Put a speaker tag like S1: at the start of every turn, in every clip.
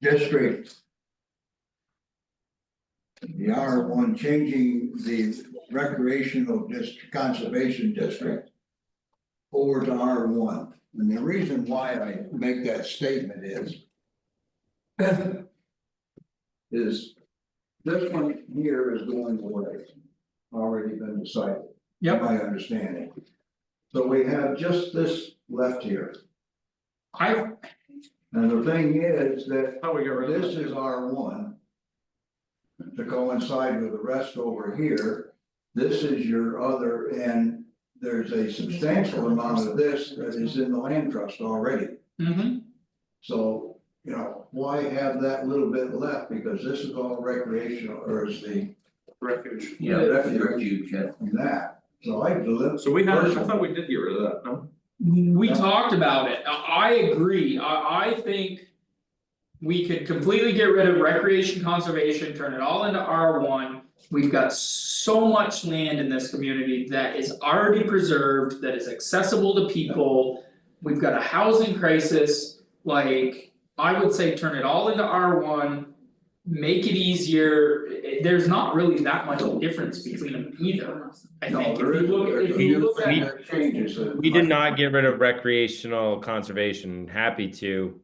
S1: district. The R one, changing the recreational district, conservation district. Over to R one, and the reason why I make that statement is. Is this one here is going away, already been decided.
S2: Yep,
S1: My understanding. So we have just this left here,
S2: I
S1: and the thing is that
S2: thought we got rid of
S1: this
S2: this.
S1: is R one. To coincide with the rest over here, this is your other, and there's a substantial amount of this that is in the land trust already.
S2: Mm-hmm,
S1: So, you know, why have that little bit left, because this is all recreational, or is the,
S2: refuge.
S3: Yeah, that's the refuge, yeah.
S1: that, so I.
S4: So we had, I thought we did get rid of that, no?
S2: We talked about it, I I agree, I I think. We could completely get rid of recreation conservation, turn it all into R one. We've got so much land in this community that is already preserved, that is accessible to people. We've got a housing crisis, like, I would say turn it all into R one. Make it easier, I- I- there's not really that much difference between them either, I
S1: No,
S2: think, if you
S1: there is-
S2: look,
S1: there's
S2: if
S1: a
S2: you
S1: few
S2: look at.
S1: things that changes that-
S5: We did not get rid of recreational conservation, happy to.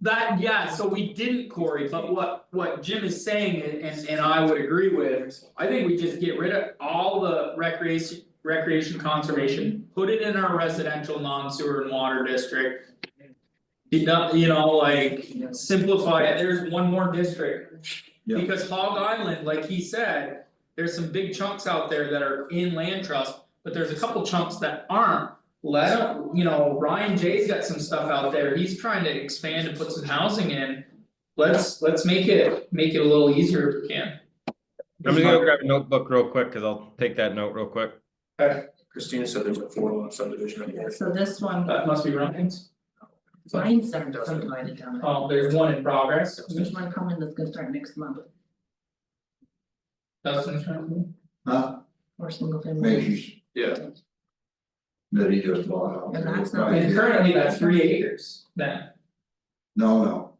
S2: That, yeah, so we didn't Corey, but what what Jim is saying and and and I would agree with, I think we just get rid of all the recreation. Recreation conservation, put it in our residential non-sewer and water district. You know, you know, like simplify it, there's one more district.
S1: Yeah.
S2: Because Hog Island, like he said, there's some big chunks out there that are in land trust, but there's a couple chunks that aren't. Let him, you know, Ryan J's got some stuff out there, he's trying to expand and put some housing in. Let's, let's make it, make it a little easier if we can.
S5: I'm gonna go grab a notebook real quick, cause I'll take that note real quick.
S4: Christina said there's a four lot subdivision up
S6: Yeah,
S4: there.
S6: so this one,
S1: Uh,
S2: That must be Ryan's,
S6: mine's subdivided down
S1: Uh,
S6: there.
S2: oh, there's one in progress,
S6: There's one coming that's gonna start next month,
S2: Dustin's trying to.
S1: Huh?
S6: or single family.
S1: Maybe
S4: Yeah,
S1: that he just bought out.
S6: And that's not-
S2: And
S1: Right.
S2: currently that's three acres then,
S1: No, no,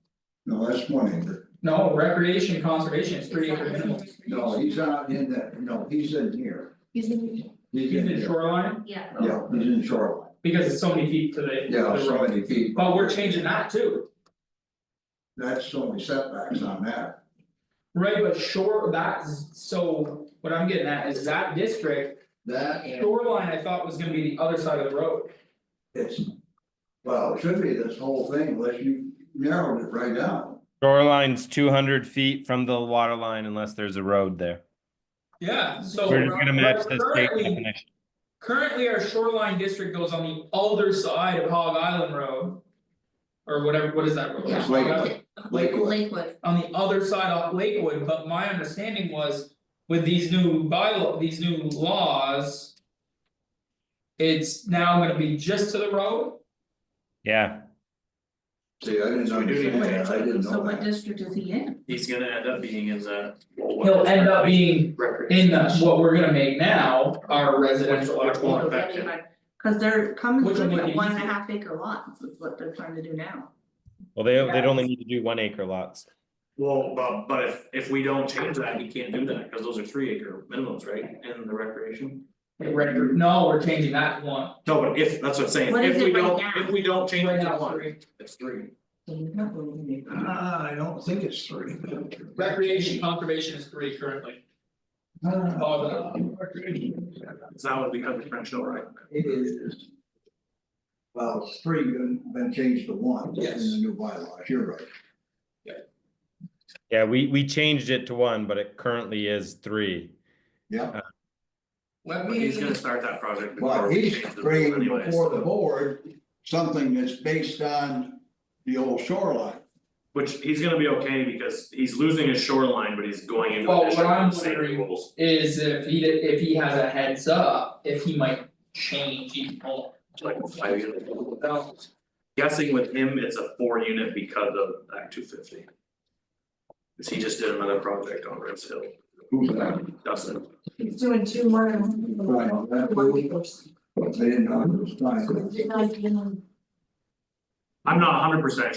S1: no, that's one acre,
S2: no, recreation conservation is three acre minimum.
S1: no, he's not in that, no, he's in here,
S6: He's in,
S1: he's
S2: He's
S1: in
S2: in
S1: here,
S2: shoreline,
S6: yeah,
S1: yeah, he's in shoreline,
S2: because it's so many feet to the to the
S1: yeah, so
S2: road.
S1: many feet.
S2: But we're changing that too,
S1: That's only setbacks on that,
S2: right, but shore, that's, so what I'm getting at is that district,
S1: that and
S2: shoreline I thought was gonna be the other side of the road.
S1: it's. Well, it should be this whole thing, unless you narrowed it right down,
S5: Shoreline's two hundred feet from the water line unless there's a road there.
S2: Yeah, so.
S5: We're just gonna match the state
S2: Currently,
S5: definition.
S2: currently our shoreline district goes on the other side of Hog Island Road. Or whatever, what is that road? Uh,
S6: Yeah.
S1: It's Lakewood. Lakewood,
S6: Lakewood,
S2: on the other side of Lakewood, but my understanding was with these new bylaw, these new laws. It's now gonna be just to the road,
S5: Yeah,
S1: see, I didn't
S4: So we do need to
S1: understand that,
S4: change
S1: I
S4: that.
S1: didn't
S6: so
S1: know
S6: what
S1: that,
S6: district is he in?
S4: he's gonna end up being in the.
S2: he'll end up being in
S4: Recreation.
S2: the, what we're gonna make now, our residential
S4: Which- which one?
S2: R1.
S4: back in.
S6: Cause they're coming
S2: Which one
S6: through
S2: would be
S6: at one and a
S2: easier?
S6: half acre lots, is what they're trying to do now.
S5: well, they, they'd only need to do one acre lots.
S4: Well, but but if if we don't change that, we can't do that, cause those are three acre minimums, right, in the recreation?
S2: Right, no, we're changing that to one.
S4: No, but if, that's what I'm saying,
S6: What is
S4: if we
S6: it right
S4: don't,
S6: now?
S4: if we don't change
S2: Right
S4: it
S2: now,
S4: to one,
S2: three.
S4: it's three.
S6: So you're not going to make that.
S1: ah, I don't think it's three.
S2: Recreation conservation is three currently,
S1: Uh,
S2: Hog Island.
S4: It's now become the French Hill, right?
S1: It is. Well, it's three been been changed to one in the
S4: Yes.
S1: new bylaws, you're right.
S5: Yeah, we, we changed it to one, but it currently is three.
S2: Let
S4: But
S2: me.
S4: he's gonna start that project before
S1: But
S4: we
S1: he's
S4: change the rules
S1: bringing
S4: anyways.
S1: before the board something that's based on the old shoreline.
S4: Which he's gonna be okay because he's losing his shoreline, but he's going into
S2: Well,
S4: the
S2: what
S4: district
S2: I'm
S4: with the same
S2: wondering-
S4: rules.
S2: Is if he did, if he has a heads up, if he might change even more.
S4: Like a five unit. Guessing with him, it's a four unit because of Act two fifty. Cause he just did another project on Rose Hill,
S1: Who's that?
S4: Dustin,
S6: He's doing two more than
S1: Right, that
S6: one
S1: was- They didn't know it was fine.
S6: acres.
S4: I'm not hundred percent